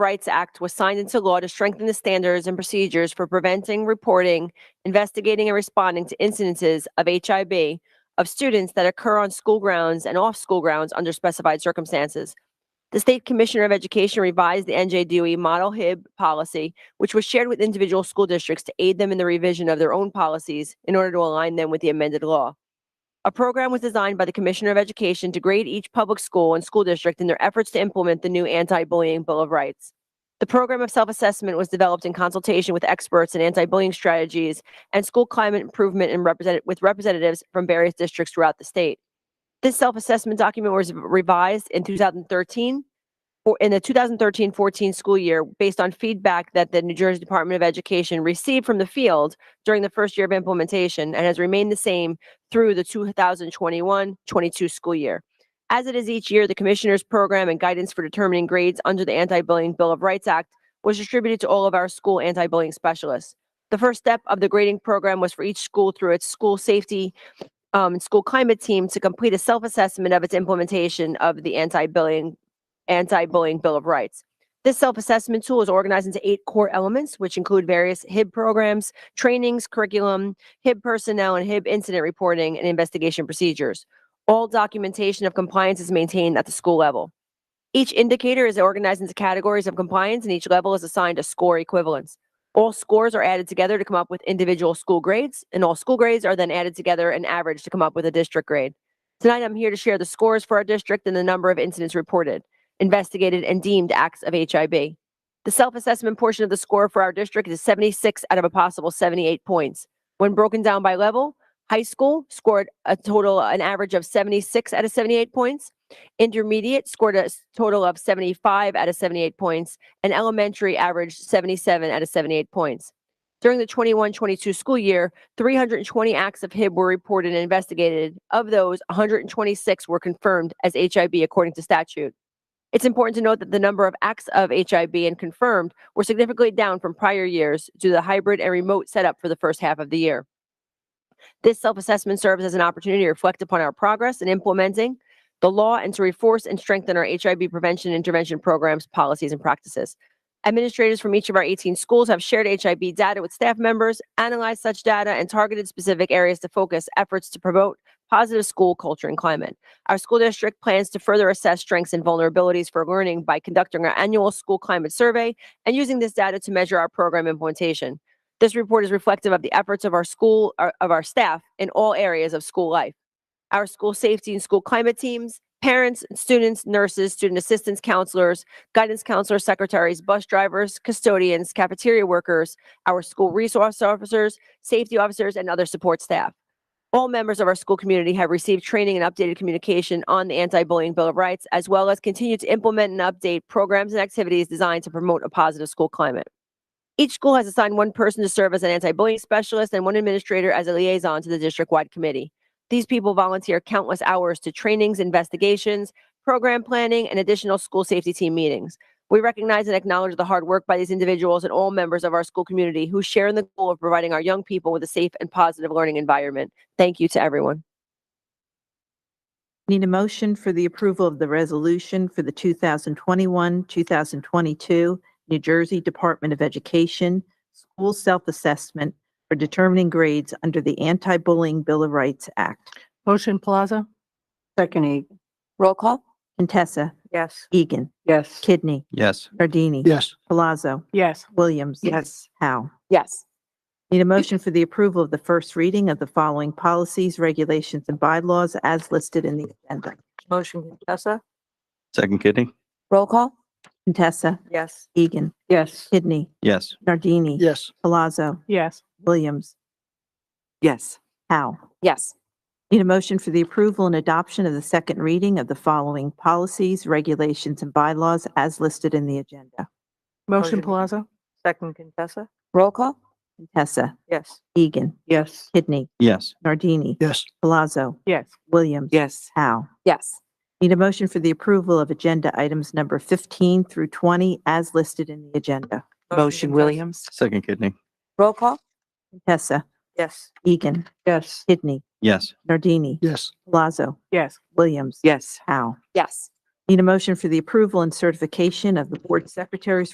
Rights Act was signed into law to strengthen the standards and procedures for preventing, reporting, investigating, and responding to incidences of HIB of students that occur on school grounds and off school grounds under specified circumstances. The State Commissioner of Education revised the NJDOE E Model HIB policy, which was shared with individual school districts to aid them in the revision of their own policies in order to align them with the amended law. A program was designed by the Commissioner of Education to grade each public school and school district in their efforts to implement the new anti-bullying Bill of Rights. The program of self-assessment was developed in consultation with experts in anti-bullying strategies and school climate improvement and represented with representatives from various districts throughout the state. This self-assessment document was revised in 2013 for in the 2013-14 school year based on feedback that the New Jersey Department of Education received from the field during the first year of implementation and has remained the same through the 2021-22 school year. As it is each year, the Commissioner's Program and Guidance for Determining Grades under the Anti-Bullying Bill of Rights Act was distributed to all of our school anti-bullying specialists. The first step of the grading program was for each school through its school safety um, and school climate team to complete a self-assessment of its implementation of the anti-bullying anti-bullying Bill of Rights. This self-assessment tool is organized into eight core elements, which include various HIB programs, trainings, curriculum, HIB personnel, and HIB incident reporting and investigation procedures. All documentation of compliance is maintained at the school level. Each indicator is organized into categories of compliance, and each level is assigned a score equivalence. All scores are added together to come up with individual school grades, and all school grades are then added together and averaged to come up with a district grade. Tonight, I'm here to share the scores for our district and the number of incidents reported investigated, and deemed acts of HIB. The self-assessment portion of the score for our district is 76 out of a possible 78 points. When broken down by level, high school scored a total, an average of 76 out of 78 points. Intermediate scored a s- total of 75 out of 78 points, and elementary averaged 77 out of 78 points. During the 21-22 school year, 320 acts of HIB were reported and investigated. Of those, 126 were confirmed as HIB according to statute. It's important to note that the number of acts of HIB and confirmed were significantly down from prior years due to the hybrid and remote setup for the first half of the year. This self-assessment serves as an opportunity to reflect upon our progress in implementing the law and to reinforce and strengthen our HIB prevention and intervention programs, policies, and practices. Administrators from each of our 18 schools have shared HIB data with staff members, analyzed such data, and targeted specific areas to focus efforts to promote positive school culture and climate. Our school district plans to further assess strengths and vulnerabilities for learning by conducting our annual school climate survey and using this data to measure our program implementation. This report is reflective of the efforts of our school, our- of our staff in all areas of school life. Our school safety and school climate teams, parents, students, nurses, student assistance counselors, guidance counselors, secretaries, bus drivers, custodians, cafeteria workers, our school resource officers, safety officers, and other support staff. All members of our school community have received training and updated communication on the anti-bullying Bill of Rights, as well as continue to implement and update programs and activities designed to promote a positive school climate. Each school has assigned one person to serve as an anti-bullying specialist and one administrator as a liaison to the district-wide committee. These people volunteer countless hours to trainings, investigations, program planning, and additional school safety team meetings. We recognize and acknowledge the hard work by these individuals and all members of our school community who share in the goal of providing our young people with a safe and positive learning environment. Thank you to everyone. Need a motion for the approval of the resolution for the 2021, 2022 New Jersey Department of Education School Self-Assessment for Determining Grades under the Anti-Bullying Bill of Rights Act. Motion Plaza? Second E. Egan. Roll call? Contessa, Yes. Egan, Yes. Kidney, Yes. Gardini. Yes. Palazzo, Yes. Williams. Yes. Howe. Yes. Need a motion for the approval of the first reading of the following policies, regulations, and bylaws as listed in the agenda. Motion Contessa? Second kidney? Roll call? Contessa, Yes. Egan, Yes. Kidney, Yes. Nardini. Yes. Palazzo, Yes. Williams. Yes. Howe. Yes. Need a motion for the approval and adoption of the second reading of the following policies, regulations, and bylaws as listed in the agenda. Motion Motion. Plaza? Second Contessa? Roll call? Contessa, Yes. Egan, Yes. Kidney, Yes. Nardini, Yes. Palazzo, Yes. Williams. Yes. Howe. Yes. Need a motion for the approval of agenda items number 15 through 20 as listed in the agenda. Motion Williams? Second kidney? Roll call? Contessa, Yes. Egan, Yes. Kidney, Yes. Nardini, Yes. Palazzo, Yes. Williams. Yes. Howe. Yes. Need a motion for the approval and certification of the board secretary's